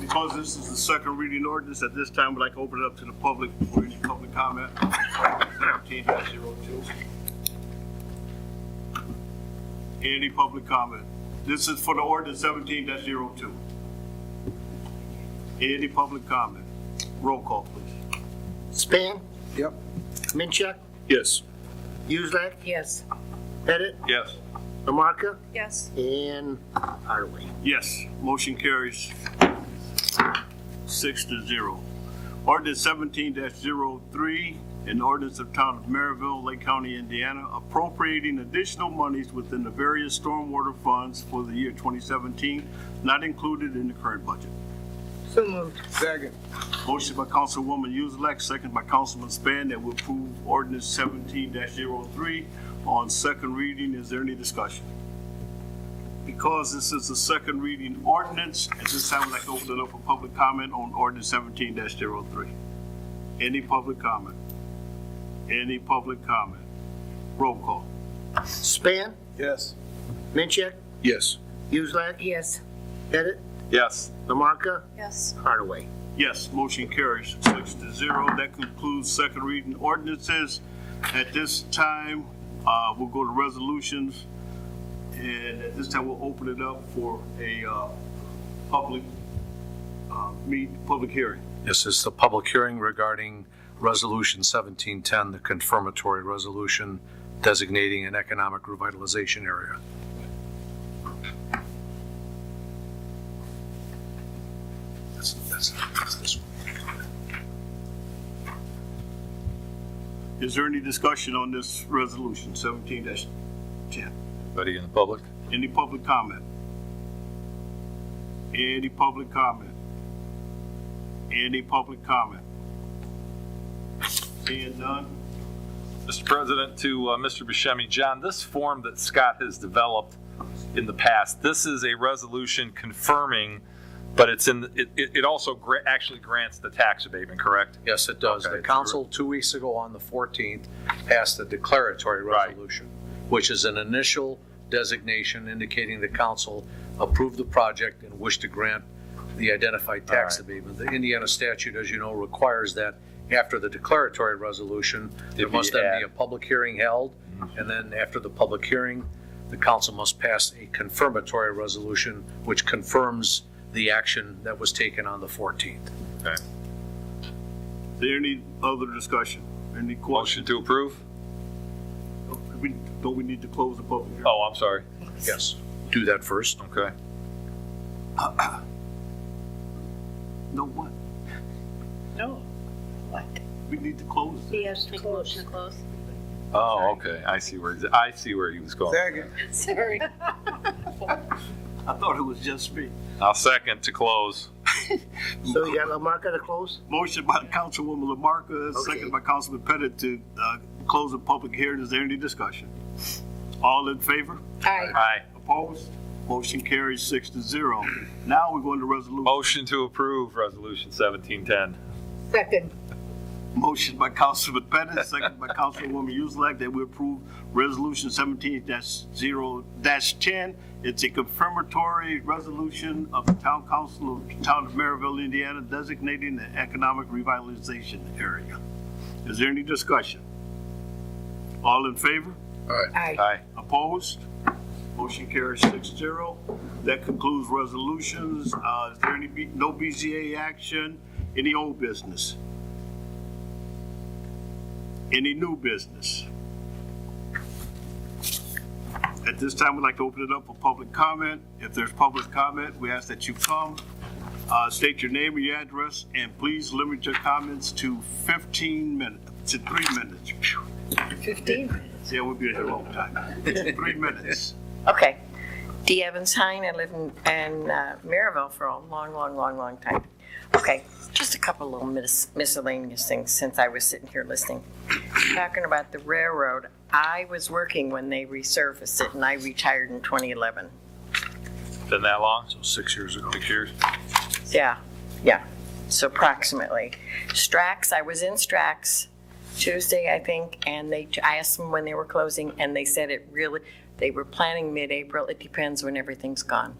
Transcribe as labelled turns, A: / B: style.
A: Because this is the second reading ordinance, at this time, we'd like to open it up to the public for any public comment. Seventeen 02 Any public comment? This is for the ordinance seventeen 2 Any public comment? Roll call, please.
B: Span,
C: Yep.
B: Minchuck,
A: Yes.
B: Uselak,
D: Yes.
B: Pettit,
A: Yes.
B: Lamarcus,
D: Yes.
B: and Hardaway.
A: Yes, motion carries six to zero. Ordinance seventeen 3 an ordinance of Town of Maryville, Lake County, Indiana, appropriating additional monies within the various stormwater funds for the year twenty seventeen, not included in the current budget.
D: So moved.
C: Second.
A: Motion by Councilwoman Uselak, second by Councilman Span, that we approve ordinance seventeen 3 on second reading. Is there any discussion? Because this is the second reading ordinance, at this time, I'd like to open it up for public comment on ordinance seventeen 3 Any public comment? Any public comment? Roll call.
B: Span,
C: Yes.
B: Minchuck,
C: Yes.
B: Uselak,
D: Yes.
B: Pettit,
C: Yes.
B: Lamarcus,
D: Yes.
B: Hardaway.
A: Yes, motion carries six to zero. That concludes second reading ordinances. At this time, uh, we'll go to resolutions. And at this time, we'll open it up for a, uh, public, uh, meet, public hearing.
E: This is the public hearing regarding Resolution 1710, the confirmatory resolution designating an economic revitalization area. That's, that's, that's this one.
A: Is there any discussion on this resolution seventeen ten?
F: Anybody in the public?
A: Any public comment? Any public comment? Any public comment? Seeing none?
F: Mr. President, to uh, Mr. Buscemi, John, this form that Scott has developed in the past, this is a resolution confirming, but it's in, it, it it also gra- actually grants the tax abatement, correct?
E: Yes, it does.
F: Okay,
E: The
F: it's
E: council, two weeks ago on the 14th, passed the declaratory
F: Right.
E: resolution, which is an initial designation indicating the council approved the project and wished to grant the identified tax
F: All
E: abatement. The Indiana statute, as you know, requires that after the declaratory resolution, there
F: we
E: must then be
F: add-
E: a public hearing held,
F: Mm-hmm.
E: and then after the public hearing, the council must pass a confirmatory resolution, which confirms the action that was taken on the 14th.
A: Is there any other discussion? Any
F: Motion
A: questions?
F: to approve?
A: We- Don't we need to close the public hearing?
F: Oh, I'm sorry.
E: Yes, do that first.
F: Okay.
A: No, what?
D: No. What?
A: We need to close it.
D: He has to close.
G: close.
F: Oh, okay. I see where, I see where he was going.
C: Second.
D: Sorry.
A: I thought it was just me.
F: I'll second to close.
B: So you got Lamarcus to close?
A: Motion by Councilwoman Lamarcus, second
B: Okay.
A: by Councilman Pettit to, uh, close the public hearing. Is there any discussion? All in favor?
D: Aye.
F: Aye.
A: Opposed? Motion carries six to zero. Now we're going to resolution.
F: Motion to approve Resolution 1710.
D: Second.
A: Motion by Councilman Pettit, second by Councilwoman Uselak, that we approve Resolution seventeen zero ten. It's a confirmatory resolution of the Town Council of the Town of Maryville, Indiana, designating the economic revitalization area. Is there any discussion? All in favor?
D: Aye.
F: Aye.
A: Opposed? Motion carries six zero. That concludes resolutions. Uh, is there any, B- no BZA action? Any old business? Any new business? At this time, we'd like to open it up for public comment. If there's public comment, we ask that you come, uh, state your name and your address, and please limit your comments to fifteen minutes, to three minutes. Phew.
D: Fifteen.
A: Yeah, we'll be here a long time. Three minutes.
G: Okay. Dee Evans Hine, I live in, in uh, Maryville for a long, long, long, long time. Okay, just a couple little mis- miscellaneous things since I was sitting here listening. Talking about the railroad, I was working when they resurfaced it and I retired in 2011.
F: Been that long?
E: six years ago.
F: Six years?
G: Yeah, yeah, so approximately. Strax, I was in Strax Tuesday, I think, and they, I asked them when they were closing, and they said it really, they were planning mid-April, it depends when everything's gone.